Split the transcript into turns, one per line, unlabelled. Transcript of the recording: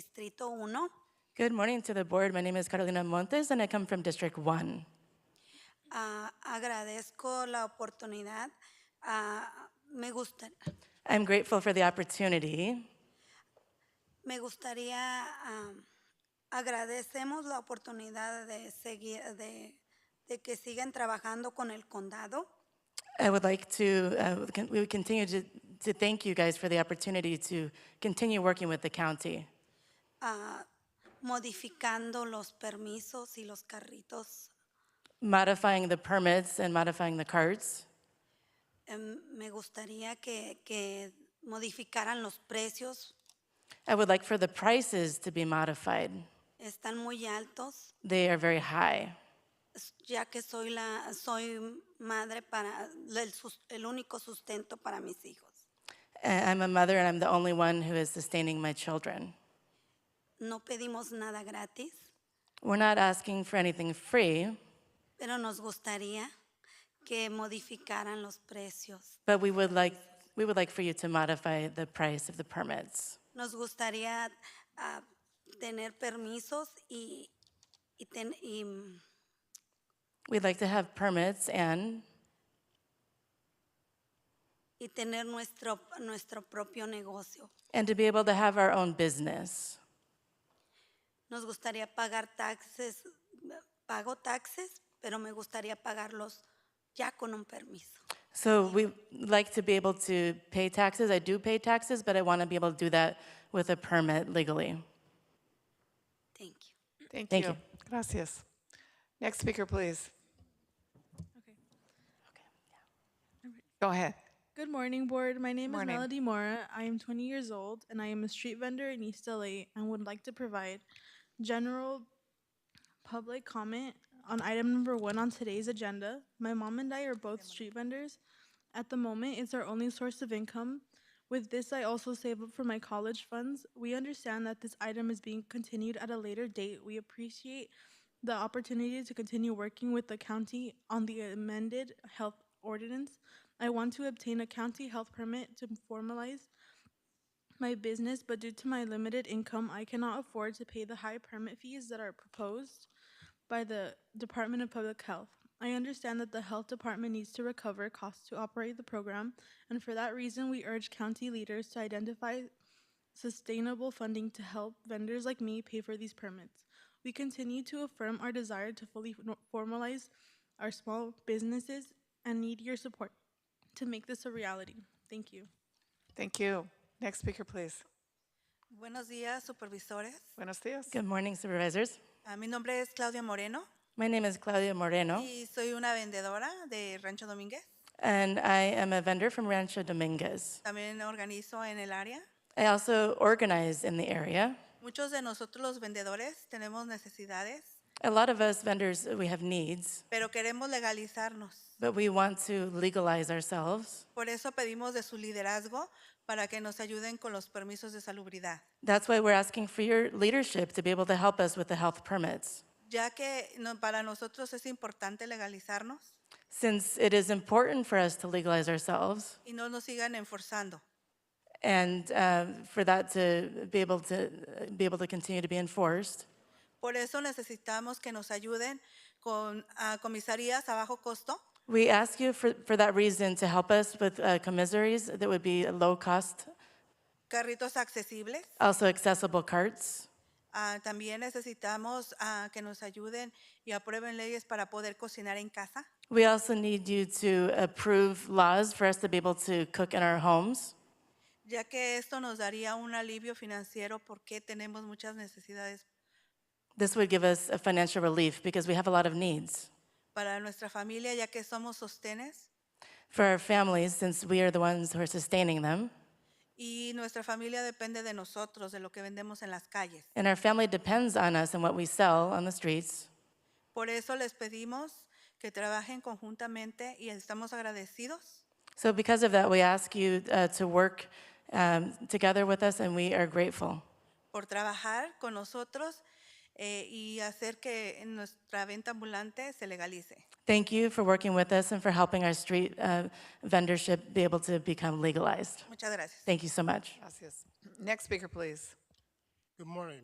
Distrito 1.
Good morning to the board. My name is Carolina Montes, and I come from District 1.
Ah, agradezco la oportunidad. Ah, me, gusta-
I'm grateful for the opportunity.
me gustaría, ah, agradecemos la oportunidad de, seguir, de, de que sigan trabajando con el condado.
I would like to, uh, con- we would continue to, to thank you guys for the opportunity to continue working with the county,
ah, modificando los permisos y los carritos.
modifying the permits and modifying the cards.
Em, me gustaría que, que modificaran los precios.
I would like for the prices to be modified.
Están muy altos,
They are very high.
s- ya que soy, la, soy madre para el, sus- el único sustento para mis hijos.
Uh, I'm a mother, and I'm the only one who is sustaining my children.
No pedimos nada gratis,
We're not asking for anything free,
pero nos gustaría que modificaran los precios.
but we would like, we would like for you to modify the price of the permits.
Nos gustaría ah, tener permisos y, y ten- y, mm,
We'd like to have permits and,
y tener nuestro, nuestro propio negocio.
and to be able to have our own business.
Nos gustaría pagar taxes, pago taxes, pero me gustaría pagarlos ya con un permiso.
So we like to be able to pay taxes. I do pay taxes, but I want to be able to do that with a permit legally.
Thank you.
Thank,
Thank
you.
you.
Gracias. Next speaker, please. Go ahead.
Good morning, board. My name
Morning.
is Melody Mora. I am 20 years old and I am a street vendor in East LA and would like to provide general public comment on item number one on today's agenda. My mom and I are both street vendors. At the moment, it's our only source of income. With this, I also save up for my college funds. We understand that this item is being continued at a later date. We appreciate the opportunity to continue working with the county on the amended health ordinance. I want to obtain a county health permit to formalize my business, but due to my limited income, I cannot afford to pay the high permit fees that are proposed by the Department of Public Health. I understand that the health department needs to recover costs to operate the program, and for that reason, we urge county leaders to identify sustainable funding to help vendors like me pay for these permits. We continue to affirm our desire to fully no- formalize our small businesses and need your support to make this a reality. Thank you.
Thank you. Next speaker, please.
Buenos días, supervisores.
Buenos dias.
Good morning, supervisors.
Ah, mi nombre es Claudia Moreno
My name is Claudia Moreno,
y soy una vendedora de Rancho Domínguez.
and I am a vendor from Rancho Dominguez.
También organizo en el área.
I also organize in the area.
Muchos de nosotros los vendedores tenemos necesidades,
A lot of us vendors, we have needs,
pero queremos legalizarnos.
but we want to legalize ourselves.
Por eso pedimos de su liderazgo para que nos ayuden con los permisos de salubridad,
That's why we're asking for your leadership to be able to help us with the health permits.
ya que no- para nosotros es importante legalizarnos
Since it is important for us to legalize ourselves,
y no nos sigan enforzando.
and uh, for that to be able to be able to continue to be enforced.
Por eso necesitamos que nos ayuden con ah, comisarías a bajo costo
We ask you for, for that reason to help us with uh, commissaries that would be a low cost,
carritos accesibles.
also accessible carts.
Ah, también necesitamos ah, que nos ayuden y aprueben leyes para poder cocinar en casa.
We also need you to approve laws for us to be able to cook in our homes,
ya que esto nos daría un alivio financiero porque tenemos muchas necesidades
this would give us a financial relief because we have a lot of needs
para nuestra familia, ya que somos sostenes
for our families since we are the ones who are sustaining them.
y nuestra familia depende de nosotros, de lo que vendemos en las calles.
And our family depends on us and what we sell on the streets.
Por eso les pedimos que trabajen conjuntamente y estamos agradecidos
So, because of that, we ask you uh, to work um, together with us, and we are grateful
por trabajar con nosotros eh, y hacer que nuestra venta ambulante se legalice.
Thank you for working with us and for helping our street uh, vendorship be able to become legalized.
Muchas gracias.
Thank you so much.
Gracias. Next speaker, please.
Good morning.